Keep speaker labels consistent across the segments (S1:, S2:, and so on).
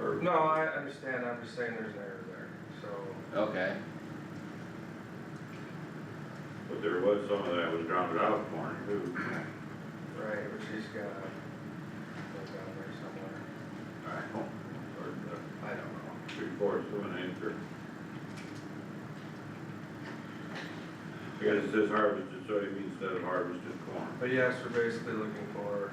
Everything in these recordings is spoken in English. S1: or?
S2: No, I understand, I'm just saying there's an error there, so,
S1: Okay,
S3: But there was some of that was grounded out corn too.
S2: right, but she's got, that's down there somewhere,
S3: I don't, or
S2: I don't know.
S3: the three fourths of an acre. I guess it says harvested soybean instead of harvested corn.
S2: But yes, we're basically looking for.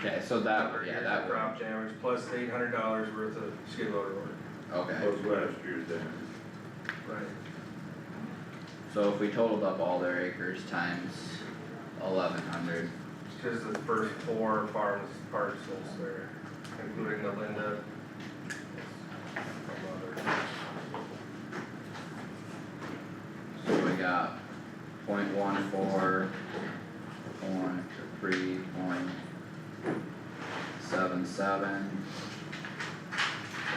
S1: okay, so that,
S2: cover
S1: yeah,
S2: years of
S1: that would,
S2: Crop damage plus eight hundred dollars worth of skid loader work.
S1: okay,
S3: Those last year's then.
S2: Right.
S1: so if we totaled up all their acres times eleven hundred,
S2: It's just the first four farms parcels there, including the Linda.
S1: so we got point one four, point three, point seven seven,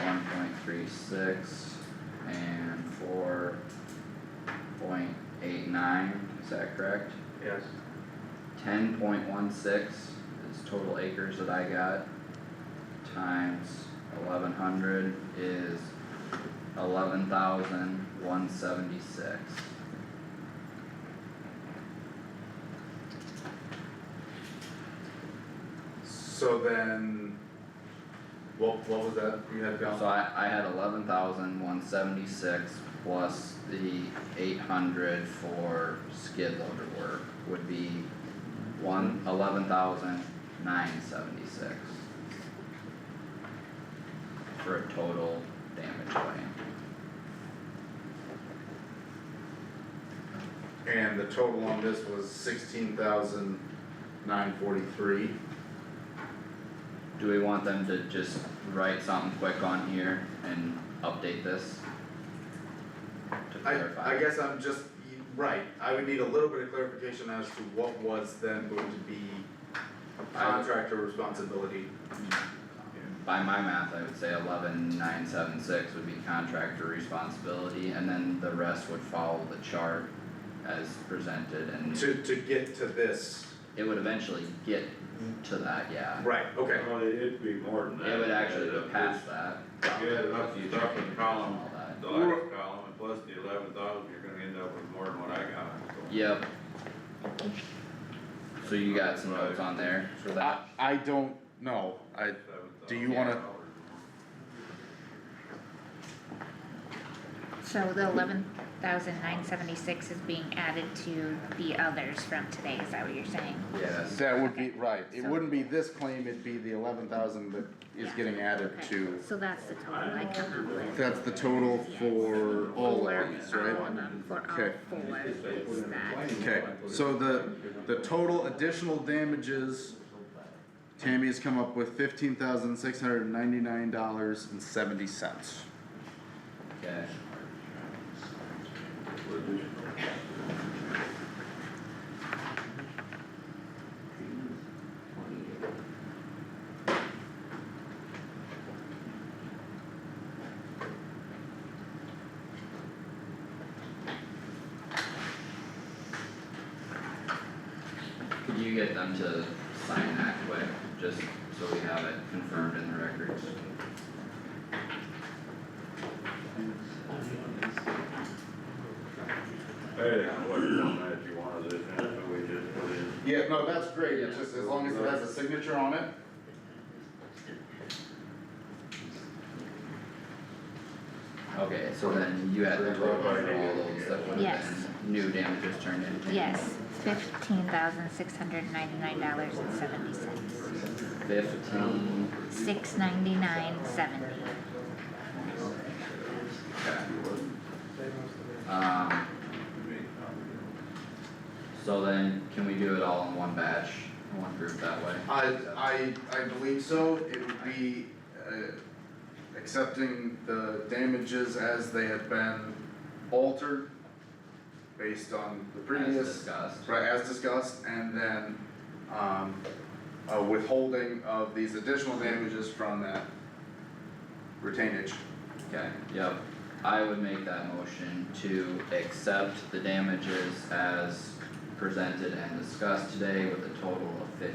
S1: one point three six, and four point eight nine, is that correct?
S2: Yes.
S1: ten point one six is total acres that I got. Times eleven hundred is eleven thousand one seventy-six.
S4: So then, what, what was that you had down?
S1: So I, I had eleven thousand one seventy-six plus the eight hundred for skid loader work would be one, eleven thousand nine seventy-six. For a total damage claim.
S4: And the total on this was sixteen thousand nine forty-three.
S1: Do we want them to just write something quick on here and update this? To
S4: I,
S1: clarify.
S4: I guess I'm just, you- right, I would need a little bit of clarification as to what was then going to be contractor responsibility.
S1: By my math, I would say eleven nine seven six would be contractor responsibility, and then the rest would follow the chart as presented, and
S4: To, to get to this,
S1: it would eventually get to that, yeah.
S4: right, okay,
S3: Well, it'd be more than that.
S1: It would actually go
S3: Yeah,
S1: past that.
S3: Yeah,
S1: the
S3: that's the
S1: future
S3: top of the
S1: acres and
S3: column.
S1: all that.
S3: The last column, and plus the eleven thousand, you're gonna end up with more than what I got. so.
S1: Yep. So you got some notes on there for that?
S4: I don't know, I, Do you wanna-
S5: So the eleven thousand nine seventy-six is being added to the others from today, is that what you're saying?
S1: Yes.
S4: That would be, right, it
S5: So-
S4: wouldn't be this claim, it'd be the eleven thousand that is getting added
S5: Okay,
S4: to.
S5: So that's the total uh-huh. I come up with.
S4: That's the total for all
S5: For
S4: lines,
S5: all
S4: right?
S5: of them, for all
S4: Okay.
S5: um, four, is that,
S4: Okay, so the, the total additional damages, Tammy has come up with fifteen thousand six hundred and ninety-nine dollars and seventy cents.
S1: Okay. Could you get them to sign that quick, just so we have it confirmed in the records?
S3: I didn't know what format you wanted this in, so we just put in.
S4: Yeah, no, that's great, it's just as long as it has a signature on it.
S1: Okay, so then you had the road runner, all those that would
S5: Yes.
S1: have been new damages turned into.
S5: yes, fifteen thousand six hundred ninety-nine dollars and seventy cents.
S1: Fifteen,
S5: Six ninety-nine seventy.
S1: okay. Um. So then, can we do it all in one batch, in one group that way?
S4: I, I, I believe so, it would be, uh, accepting the damages as they have been altered based on the
S1: As
S4: previous
S1: discussed,
S4: Right, as discussed, and then, um, a withholding of these additional damages from that retainage.
S1: okay, yep. I would make that motion to accept the damages as presented and discussed today with a total of fifteen